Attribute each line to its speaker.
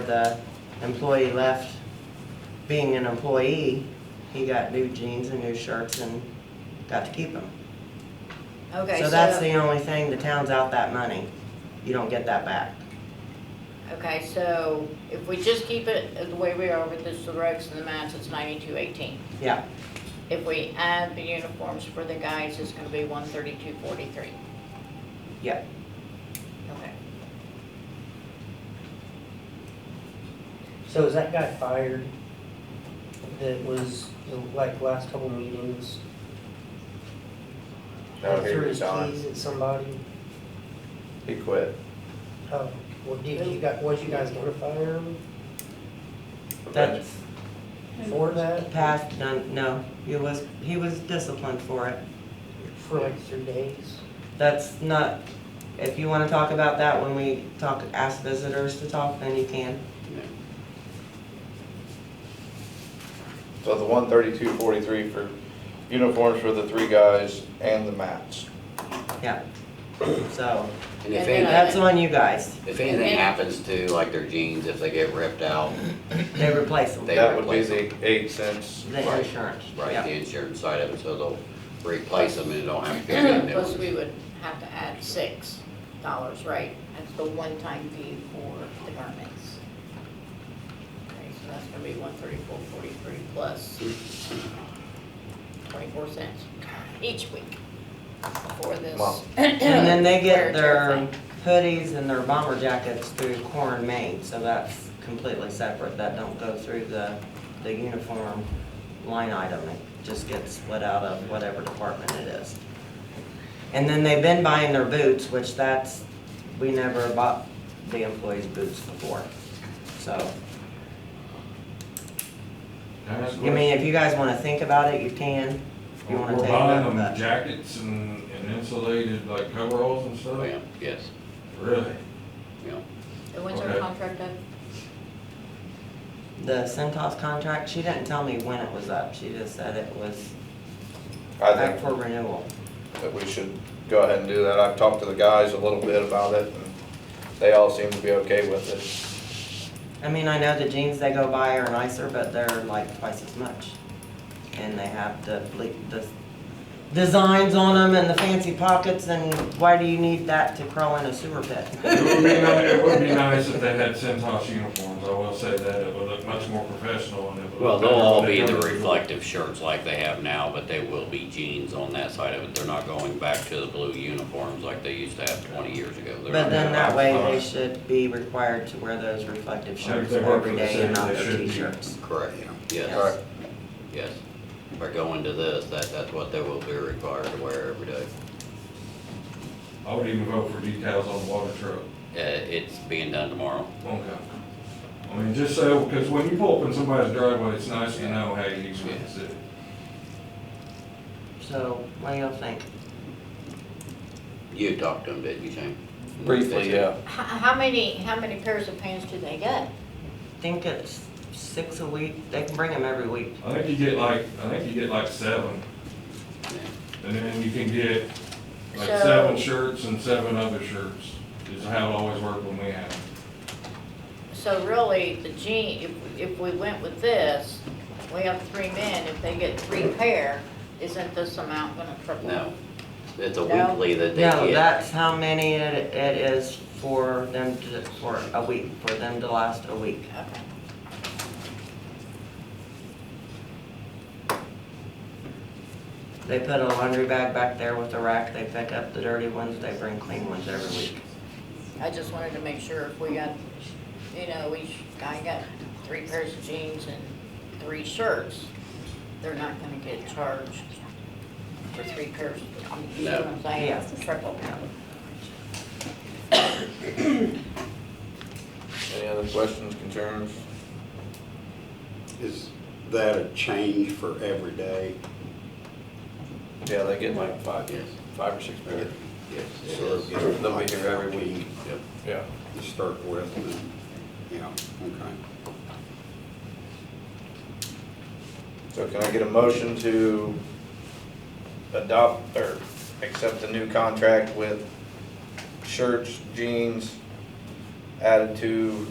Speaker 1: the employee left being an employee, he got new jeans and new shirts and got to keep them.
Speaker 2: Okay,
Speaker 1: So that's the only thing, the town's out that money. You don't get that back.
Speaker 2: Okay, so if we just keep it the way we are with this, the ropes and the mats, it's ninety-two eighteen.
Speaker 1: Yeah,
Speaker 2: If we add the uniforms for the guys, it's gonna be one thirty-two forty-three.
Speaker 1: yeah.
Speaker 2: Okay.
Speaker 3: So is that guy fired that was the, like last couple meetings?
Speaker 4: No, he
Speaker 3: Threw his
Speaker 4: resigned.
Speaker 3: keys at somebody?
Speaker 4: He quit.
Speaker 3: Oh, well, did you got, was you guys gonna fire him
Speaker 1: That's
Speaker 3: for that?
Speaker 1: past, no, no, he was, he was disciplined for it.
Speaker 3: For like three days?
Speaker 1: That's not, if you wanna talk about that when we talk, ask visitors to talk, then you can.
Speaker 4: So the one thirty-two forty-three for uniforms for the three guys and the mats.
Speaker 1: Yeah. So,
Speaker 2: And then uh,
Speaker 5: And if anything,
Speaker 1: that's on you guys.
Speaker 5: if anything happens to like their jeans, if they get ripped out,
Speaker 1: They replace them.
Speaker 5: They
Speaker 4: That would be
Speaker 5: replace
Speaker 4: the eight cents.
Speaker 1: The insurance,
Speaker 5: right,
Speaker 1: yeah.
Speaker 5: the insurance side of it, so they'll replace them and don't have to get any new
Speaker 2: Plus, we
Speaker 5: ones.
Speaker 2: would have to add six dollars, right? That's the one-time fee for the garments. Okay, so that's gonna be one thirty-four forty-three plus twenty-four cents each week for this.
Speaker 4: Wow.
Speaker 1: And then they
Speaker 2: wear
Speaker 1: get
Speaker 2: and tear
Speaker 1: their
Speaker 2: thing.
Speaker 1: hoodies and their bomber jackets through Corn, Maine, so that's completely separate. That don't go through the, the uniform line item. It just gets split out of whatever department it is. And then they've been buying their boots, which that's, we never bought the employees' boots before. So, I mean, if you guys wanna think about it, you can. If you wanna
Speaker 6: We're
Speaker 1: take
Speaker 6: buying
Speaker 1: that,
Speaker 6: them
Speaker 1: but
Speaker 6: jackets and, and insulated like coveralls and
Speaker 5: Oh,
Speaker 6: stuff?
Speaker 5: yeah, yes,
Speaker 6: Really?
Speaker 5: yeah.
Speaker 2: And when's our
Speaker 6: Okay.
Speaker 2: contract up?
Speaker 1: the Centos contract, she didn't tell me when it was up. She just said it was
Speaker 4: I
Speaker 1: Back
Speaker 4: think
Speaker 1: for renewal.
Speaker 4: that we should go ahead and do that. I've talked to the guys a little bit about it and they all seem to be okay with it.
Speaker 1: I mean, I know the jeans they go by are nicer, but they're like twice as much. And they have the ble the designs on them and the fancy pockets, and why do you need that to crawl in a sewer pit?
Speaker 6: It would be nice, it would be nice if they had Centos uniforms, I will say that, it would look much more professional and it would.
Speaker 5: Well,
Speaker 6: look
Speaker 5: they'll
Speaker 6: better
Speaker 5: all
Speaker 6: when
Speaker 5: be
Speaker 6: they
Speaker 5: in the
Speaker 6: come to-
Speaker 5: reflective shirts like they have now, but they will be jeans on that side of it. They're not going back to the blue uniforms like they used to have twenty years ago. They're
Speaker 1: But then
Speaker 5: not-
Speaker 1: that way, they should be required to wear those reflective
Speaker 6: Like if
Speaker 1: shirts
Speaker 6: they work
Speaker 1: every
Speaker 6: for the
Speaker 1: day and not
Speaker 6: city, they
Speaker 1: their
Speaker 6: should be.
Speaker 1: t-shirts.
Speaker 5: Correct,
Speaker 1: Yeah.
Speaker 5: yes,
Speaker 4: Right.
Speaker 5: yes. By going to this, that, that's what they will be required to wear every day.
Speaker 6: I would even vote for decals on the water truck.
Speaker 5: Uh, it's being done tomorrow.
Speaker 6: Okay. I mean, just so, because when you pull up in somebody's driveway, it's nice to know, hey, he's with the city.
Speaker 1: So, what do y'all think?
Speaker 5: You talked to them, didn't you, Shane?
Speaker 4: Briefly, yeah.
Speaker 2: H- How many, how many pairs of pants do they get?
Speaker 1: Think it's six a week? They can bring them every week.
Speaker 6: I think you get like, I think you get like seven, and then you can get like
Speaker 2: So-
Speaker 6: seven shirts and seven other shirts, is how it always worked when we had them.
Speaker 2: So really, the jean, if, if we went with this, we have three men, if they get three pair, isn't this amount gonna triple?
Speaker 5: No, it's a
Speaker 2: No.
Speaker 5: weekly that they
Speaker 1: No,
Speaker 5: get.
Speaker 1: that's how many it, it is for them to, for a week, for them to last a week.
Speaker 2: Okay.
Speaker 1: They put a laundry bag back there with a rack, they pick up the dirty ones, they bring clean ones every week.
Speaker 2: I just wanted to make sure if we got, you know, each guy got three pairs of jeans and three shirts, they're not gonna get charged for three pairs. I mean, You know what I'm saying?
Speaker 1: Yeah.
Speaker 2: Triple.
Speaker 4: Any other questions, concerns?
Speaker 7: Is that a change for every day?
Speaker 4: Yeah, they get like five,
Speaker 5: Yes.
Speaker 4: five or six pairs.
Speaker 7: Yes.
Speaker 4: So they'll be here every week.
Speaker 5: Yep.
Speaker 4: Yeah.
Speaker 7: To start with, and, yeah, okay.
Speaker 4: So can I get a motion to adopt or accept the new contract with shirts, jeans, added to